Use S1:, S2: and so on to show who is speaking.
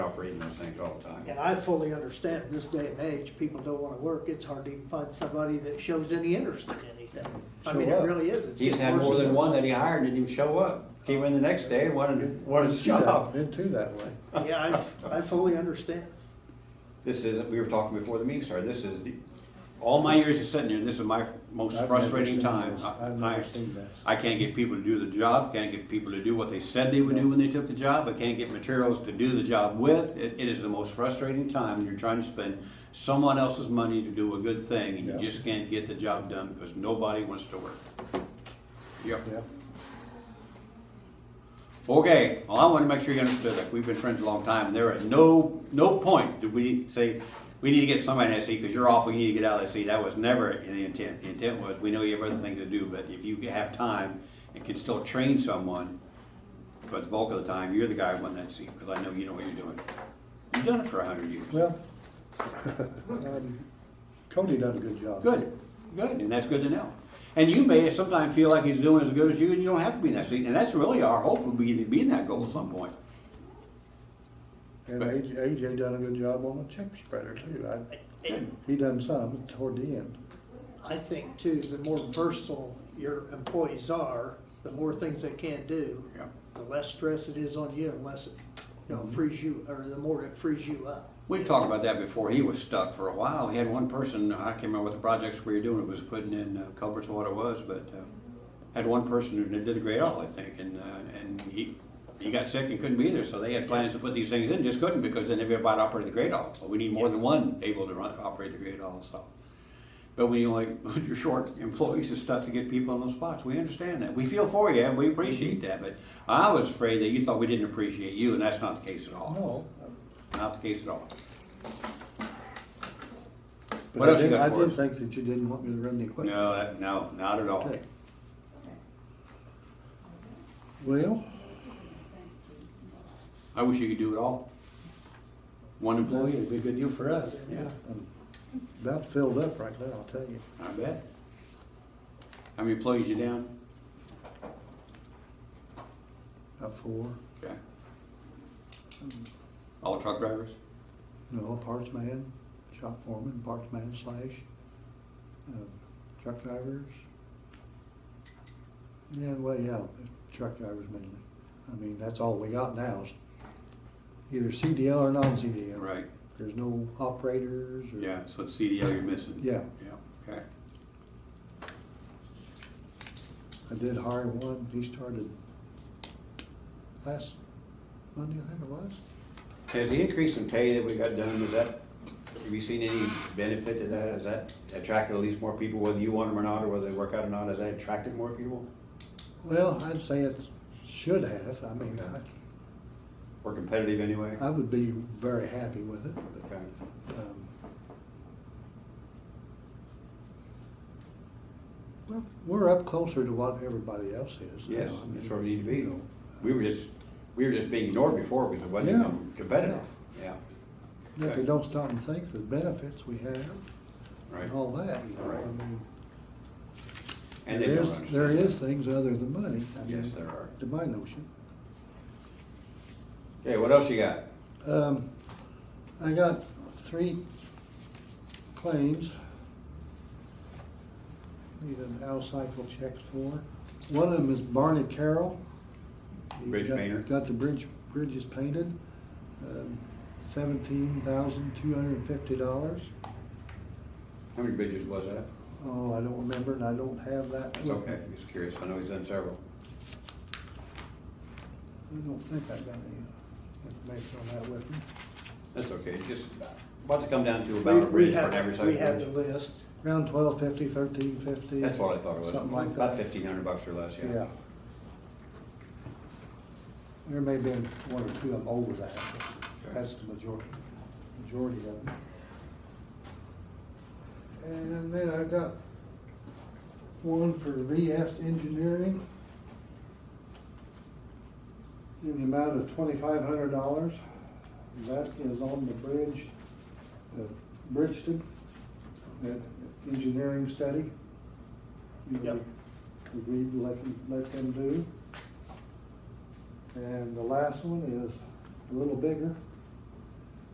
S1: these things all the time.
S2: And I fully understand, in this day and age, people don't wanna work, it's hard to even find somebody that shows any interest in anything. I
S3: So
S2: mean, it
S3: what?
S2: really is. It's
S1: He's
S2: getting
S1: had
S2: worse
S1: more
S2: and
S1: than
S2: worse.
S1: one that he hired didn't even show up. Came in the next day and wanted, wanted his job.
S3: Been too that way.
S2: Yeah, I, I fully understand.
S1: This isn't, we were talking before the meeting started, this is the, all my years of sitting here, this is my most
S3: I've never
S1: frustrating
S3: seen
S1: time.
S3: this.
S1: I-
S3: I've never
S1: I-
S3: seen this.
S1: I can't get people to do the job, can't get people to do what they said they would do when they took the job, I can't get materials to do the job with. It, it is the most frustrating time, when you're trying to spend someone else's money to do a good thing, and you
S3: Yeah.
S1: just can't get the job done because nobody wants to work. Yep.
S3: Yeah,
S1: Okay, well, I want to make sure you understood that we've been friends a long time, and there at no, no point did we say, we need to get somebody in that seat because you're off, we need to get out of that seat. That was never the intent. The intent was, we know you have other things to do, but if you have time and can still train someone, but the bulk of the time, you're the guy who won that seat, because I know you know what you're doing. You've done it for a hundred years.
S3: well, um, Cody done a good job.
S1: Good, good, and that's good to know. And you may sometimes feel like he's doing as good as you, and you don't have to be in that seat, and that's really our hope, would be to be in that goal at some point.
S3: And AJ, AJ done a good job on the chip spreader too. I,
S2: And
S3: he done some toward the end.
S2: I think too, the more versatile your employees are, the more things they can do,
S1: Yeah.
S2: the less stress it is on you, and less, it, you
S1: Mm-hmm.
S2: know, frees you, or the more it frees you up.
S1: We've talked about that before. He was stuck for a while. He had one person, I can't remember what the projects we were doing, it was putting in uh, culverts or what it was, but uh, had one person who did a great all, I think, and, uh, and he, he got sick and couldn't be there, so they had plans to put these things in, just couldn't because then everybody operated the great all. Well, We need more than one able to run, operate the great all, so. But when you like, you're short employees and stuff to get people in those spots, we understand that. We feel for you and we appreciate that, but I was afraid that you thought we didn't appreciate you, and that's not the case at all.
S3: No.
S1: Not the case at all.
S3: but
S1: What
S3: I
S1: else you
S3: did-
S1: got
S3: I
S1: for
S3: did
S1: us?
S3: think that you didn't want me to run the equipment.
S1: No, that- no, not at all.
S3: Okay. Well,
S1: I wish you could do it all. One employee would be a good deal for us. Yeah.
S3: I'm about filled up right now, I'll tell you.
S1: I bet. How many employees you down?
S3: About four,
S1: Okay. All truck drivers?
S3: no, parts man, shop foreman, parts man slash, um, truck drivers. Yeah, well, yeah, truck drivers mainly. I mean, that's all we got now is either CDL or non-CDL.
S1: Right,
S3: There's no operators or.
S1: yeah, so it's CDL you're missing.
S3: Yeah.
S1: Yeah, okay.
S3: I did hire one, he started last Monday, I think it was.
S1: Has the increase in pay that we got done, was that, have you seen any benefit to that? Has that attracted at least more people, whether you want them or not, or whether they work out or not? Has that attracted more people
S3: Well, I'd say it should have, I mean, I,
S1: or competitive anyway?
S3: I would be very happy with it, but.
S1: Okay.
S3: Um, Well, we're up closer to what everybody else is. now.
S1: Yes,
S3: I mean, uh,
S1: that's where we need to be.
S3: you know,
S1: We were just, we were just being ignored before because it wasn't
S3: Yeah.
S1: even competitive. Yeah,
S3: If they don't stop and think of the benefits we have
S1: right.
S3: and all that, you know, I
S1: Right.
S3: mean.
S1: And they
S3: there
S1: don't
S3: is- There
S1: understand.
S3: is things other than money. I
S1: Yes,
S3: mean,
S1: there are.
S3: To my notion.
S1: Okay, what else you got?
S3: Um, I got three claims. Need an out-cycle check for. One of them is Barney Carroll. He
S1: Bridge
S3: got-
S1: painter.
S3: Got the bridge, bridges painted, Um, seventeen thousand two hundred and fifty dollars.
S1: How many bridges was that?
S3: Oh, I don't remember, and I don't have that.
S1: That's
S3: with
S1: okay,
S3: me.
S1: I'm just curious, I know he's done several.
S3: I don't think I got any uh, information on that with me.
S1: That's okay, just, what's it come down to about a bridge for an average
S2: We have
S1: size
S2: the
S1: bridge?
S2: list.
S3: Around twelve fifty, thirteen fifty.
S1: That's what I thought it was.
S3: Something like
S1: About
S3: that.
S1: fifteen hundred bucks or less, yeah.
S3: Yeah. There may have been one or two of them over that, but that's the majority, majority of them. And then I got one for VS Engineering. In the amount of twenty-five hundred dollars. That is on the bridge, uh, Bridgeton, that engineering study. You know,
S2: Yep.
S3: Agreed to let them, let them do. And the last one is a little bigger.